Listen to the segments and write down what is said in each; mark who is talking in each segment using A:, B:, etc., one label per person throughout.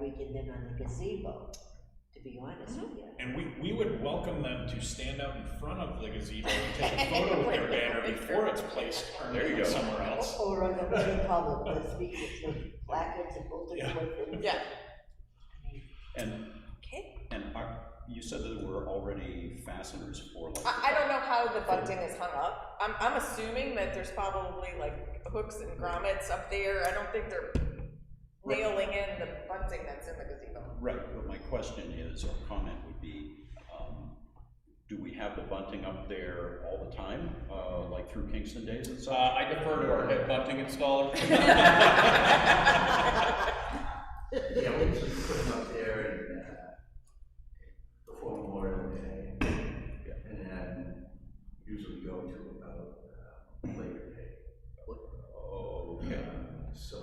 A: we can then on the gazebo, to be honest with you.
B: And we, we would welcome them to stand out in front of the gazebo and take a photo with their banner before it's placed
C: There you
B: permanently
C: go.
B: somewhere else.
A: Or on the Republic, those speakers, those placards and bulletin
B: Yeah.
A: board things.
D: Yeah.
C: And,
D: Okay.
C: and are, you said that there were already fasteners for like.
D: I, I don't know how the bunting is hung up. I'm, I'm assuming that there's probably like hooks and grommets up there. I don't think they're nailing in the bunting that's in the gazebo.
C: Right, but my question is, or comment would be, um, do we have the bunting up there all the time, uh, like through Kingston days and
B: Uh,
C: such?
B: I defer to our head bunting installer.
E: Yeah, we usually put them up there and, uh, before Memorial Day. And then usually go to about, uh, Labor Day.
C: Oh, okay,
E: Um, So,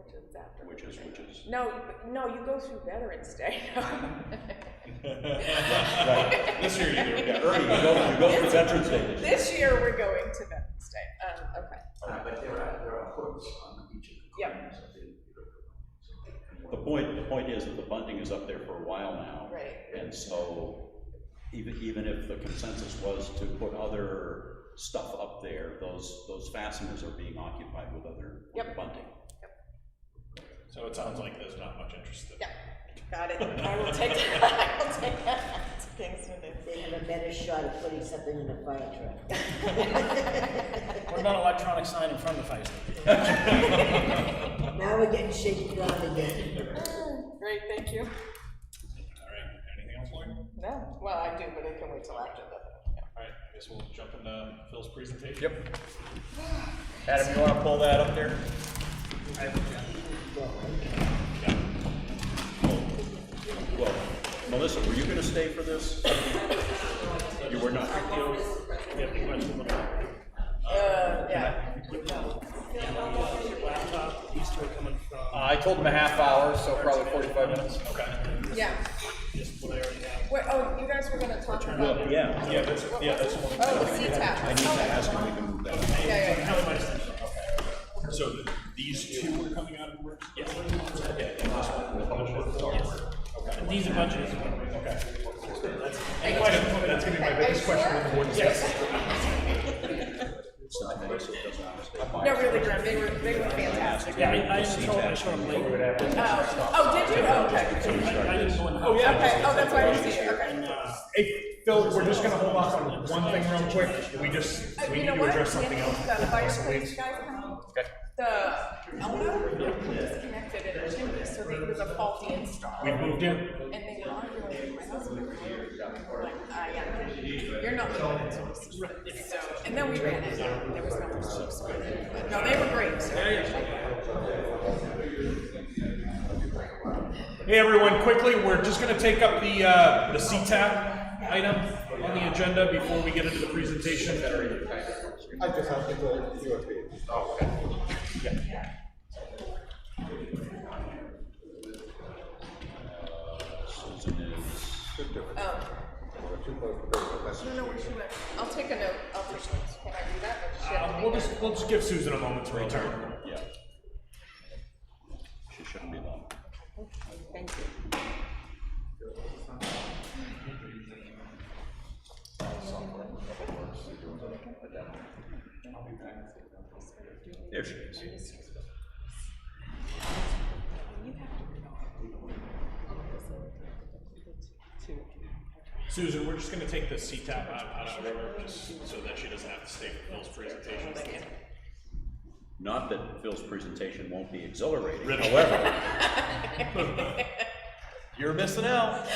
D: Which is after.
C: which is, which is,
D: No, you- no, you go through Veterans Day.
C: Right.
B: This year you do, yeah.
C: Ernie, you go, you go for Veterans Day this year.
D: This year, we're going to Veterans Day. Um, okay.
E: uh, but there are, there are hooks on each of the
D: Yep.
E: corners of the. the-
C: The point, the point is that the bunting is up there for a while now.
D: Right.
C: And so, even, even if the consensus was to put other stuff up there, those, those fasteners are being occupied with other, with
D: Yep.
C: bunting.
B: So it sounds like there's not much interest in.
D: Yeah. Got it. I will take that. I will take that. to Kingston Day.
A: They have a better shot of putting something in a fire truck.
F: What about an electronic sign in front of the fire station?
A: Now we're getting shaken around again.
D: Great, thank you.
B: All right, anything else, Lloyd? All
D: No, well, I do, but it can wait till after the, yeah.
B: right, I guess we'll jump into Phil's presentation. Yep.
F: Adam, you wanna pull that up there?
C: Well, Melissa, were you gonna stay for this? You were not.
D: Uh, yeah.
F: Uh,
G: I told them a half hour, so probably forty-five minutes.
D: Yeah. Wait, oh, you guys were gonna talk about.
C: Yeah, yeah,
B: that's, yeah, that's one.
D: Oh, the C
C: I need to ask him if we can move that. up.
D: Yeah, yeah, yeah.
B: So th- these two were coming out of work? Yes. Yeah, and this one, the budget. Okay.
F: These are budgets.
B: Okay. And question- That's gonna be my biggest question with the board. Yes.
C: It's not that it doesn't have to stay.
D: No, really, Grim, they were, they were fantastic.
F: Yeah, I, I showed, I showed up late.
D: Oh, oh, did you? Okay.
F: I didn't go in the house.
B: Oh, yeah.
D: Okay, oh, that's why I didn't see it,
B: uh,
D: okay. Uh,
B: Hey, Phil, we're just gonna hold off on one thing real quick. We just,
D: Uh, You
B: we need
D: know
B: to
D: what?
B: address something
D: If
B: else.
D: The fireplace guy come, the Elmo disconnected it, so they- it was a faulty install.
B: We moved in.
D: And they were arguing, my husband was like, ah, yeah, you're not leaving it, so it's- so, and then we ran it, there was no excuse for it. But No, they were great, so.
B: Hey, everyone, quickly, we're just gonna take up the, uh, the CTAP item on the agenda before we get into the presentation.
H: I just have to go to your page.
C: Susan is.
D: um, No, no, where she went. I'll take a note, I'll take notes, can I do that? Or does she have to
B: Uh,
D: make
B: We'll
D: notes?
B: just, we'll just give Susan a moment to return.
C: Yeah. She shouldn't be long.
D: Thank you.
C: There she is.
B: Susan, we're just gonna take the CTAP out, out of order, just so that she doesn't have to stay for Phil's presentation.
C: Not that Phil's presentation won't be exhilarating, however,
B: You're missing out.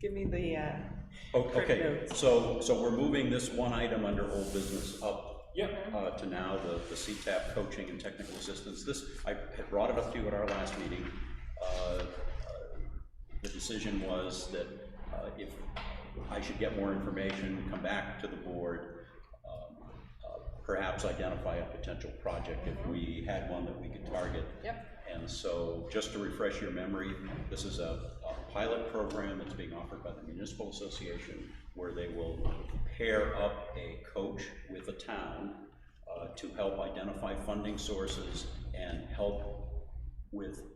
D: Give me the, uh.
C: o- okay, so, so we're moving this one item under old business up.
B: Yep.
C: Uh, to now the, the CTAP coaching and technical assistance. This, I had brought it up to you at our last meeting. Uh, The decision was that uh, if I should get more information, come back to the board, um, uh, perhaps identify a potential project if we had one that we could target.
D: Yep.
C: And so, just to refresh your memory, this is a, a pilot program that's being offered by the Municipal Association where they will pair up a coach with a town uh, to help identify funding sources and help with